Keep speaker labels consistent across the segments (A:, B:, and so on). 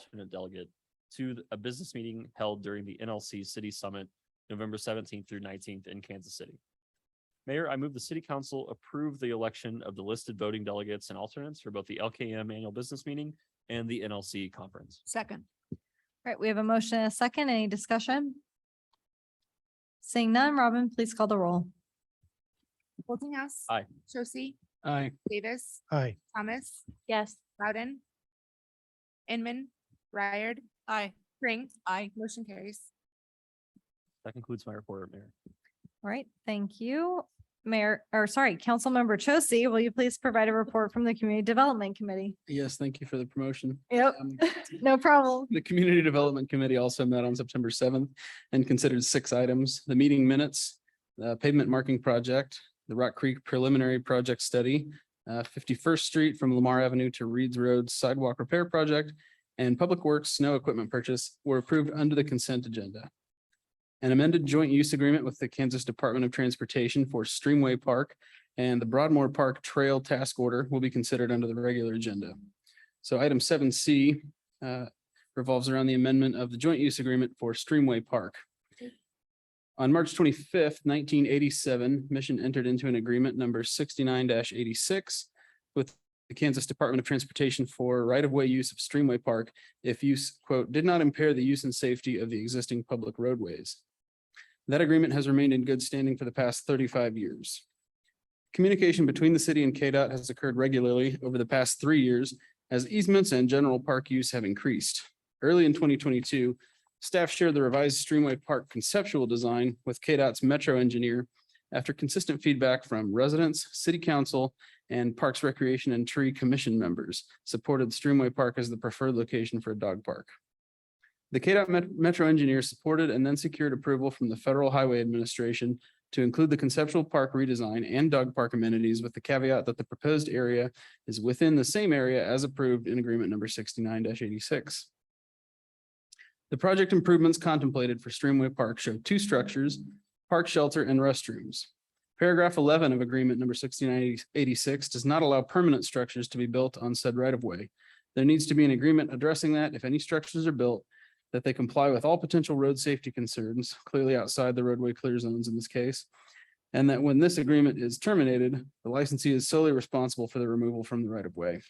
A: alternate delegate to th- a business meeting held during the NLC City Summit, November seventeenth through nineteenth in Kansas City. Mayor, I move the city council approve the election of the listed voting delegates and alternates for both the LKM Annual Business Meeting and the NLC Conference.
B: Second.
C: All right, we have a motion and a second. Any discussion? Seeing none, Robin, please call the roll.
B: Boltinghouse.
A: Aye.
B: Josie,
D: Aye.
B: Davis,
D: Aye.
B: Thomas,
C: Yes.
B: Loudon. Inman, Ryard,
C: Aye.
B: Pring,
C: Aye.
B: motion carries.
A: That concludes my report, Mayor.
C: All right, thank you. Mayor, or sorry, Councilmember Chosi, will you please provide a report from the Community Development Committee?
D: Yes, thank you for the promotion.
C: Yep.
D: Um,
C: No problem.
D: The Community Development Committee also met on September seventh and considered six items, the meeting minutes, the pavement marking project, the Rock Creek preliminary project study, uh, Fifty-first Street from Lamar Avenue to Reed's Road sidewalk repair project, and Public Works snow equipment purchase were approved under the consent agenda. An amended joint use agreement with the Kansas Department of Transportation for Streamway Park and the Broadmoor Park Trail Task Order will be considered under the regular agenda. So item seven C uh, revolves around the amendment of the joint use agreement for Streamway Park. On March twenty-fifth, nineteen eighty-seven, Mission entered into an agreement number sixty-nine eighty-six with the Kansas Department of Transportation for right-of-way use of Streamway Park if use, quote, did not impair the use and safety of the existing public roadways. That agreement has remained in good standing for the past thirty-five years. Communication between the city and KDOT has occurred regularly over the past three years as easements and general park use have increased. Early in twenty twenty-two, staff shared the revised Streamway Park conceptual design with KDOT's Metro engineer after consistent feedback from residents, city council, and Parks Recreation and Tree Commission members supported Streamway Park as the preferred location for a dog park. The KDOT Met- Metro engineer supported and then secured approval from the Federal Highway Administration to include the conceptual park redesign and dog park amenities with the caveat that the proposed area is within the same area as approved in agreement number sixty-nine eighty-six. The project improvements contemplated for Streamway Park show two structures, park shelter and restrooms. Paragraph eleven of agreement number sixty-nine eighty-six does not allow permanent structures to be built on said right-of-way. There needs to be an agreement addressing that if any structures are built, that they comply with all potential road safety concerns, clearly outside the roadway clear zones in this case, and that when this agreement is terminated, the licensee is solely responsible for the removal from the right of way.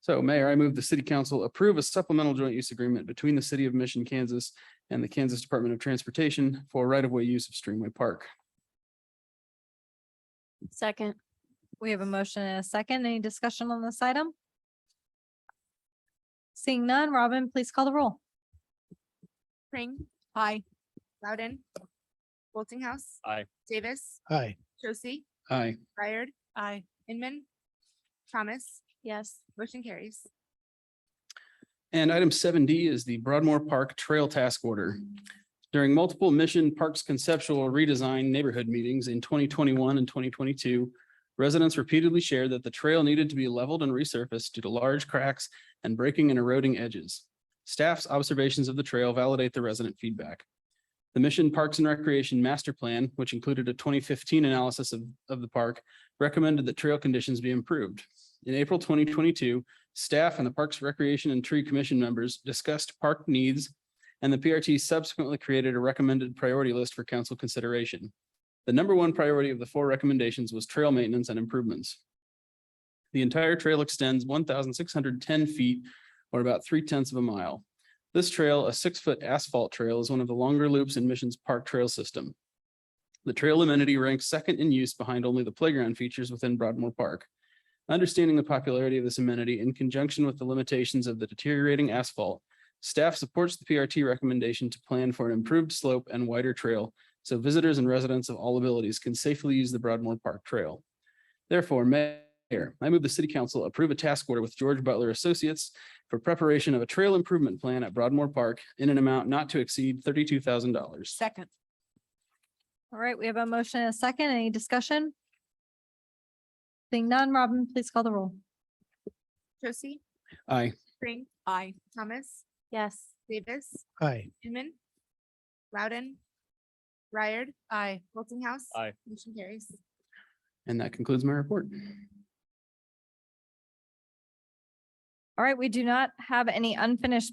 D: So Mayor, I move the city council approve a supplemental joint use agreement between the city of Mission, Kansas and the Kansas Department of Transportation for right of way use of Streamway Park.
E: Second,
C: We have a motion and a second. Any discussion on this item? Seeing none, Robin, please call the roll.
B: Pring,
C: Aye.
B: Loudon. Boltinghouse.
A: Aye.
B: Davis,
D: Aye.
B: Josie,
D: Aye.
B: Ryard,
C: Aye.
B: Inman, Thomas,
E: yes,
B: motion carries.
D: And item seven D is the Broadmoor Park Trail Task Order. During multiple Mission Parks conceptual redesign neighborhood meetings in twenty twenty-one and twenty twenty-two, residents repeatedly shared that the trail needed to be leveled and resurfaced due to large cracks and breaking and eroding edges. Staff's observations of the trail validate the resident feedback. The Mission Parks and Recreation Master Plan, which included a twenty fifteen analysis of, of the park, recommended that trail conditions be improved. In April twenty twenty-two, Staff and the Parks Recreation and Tree Commission members discussed park needs, and the PRT subsequently created a recommended priority list for council consideration. The number one priority of the four recommendations was trail maintenance and improvements. The entire trail extends one thousand six hundred ten feet, or about three tenths of a mile. This trail, a six-foot asphalt trail, is one of the longer loops in Mission's park trail system. The trail amenity ranks second in use behind only the playground features within Broadmoor Park. Understanding the popularity of this amenity in conjunction with the limitations of the deteriorating asphalt, staff supports the PRT recommendation to plan for an improved slope and wider trail so visitors and residents of all abilities can safely use the Broadmoor Park Trail. Therefore, Mayor, I move the City Council approve a task order with George Butler Associates for preparation of a trail improvement plan at Broadmoor Park in an amount not to exceed thirty-two thousand dollars.
B: Second.
C: All right, we have a motion and a second. Any discussion? Seeing none, Robin, please call the roll.
B: Josie,
D: Aye.
B: Pring,
C: Aye.
B: Thomas,
E: yes,
B: Davis,
D: Aye.
B: Inman, Loudon. Ryard. Aye. Boltinghouse.
A: Aye.
B: Motion carries.
D: And that concludes my report.
C: All right, we do not have any unfinished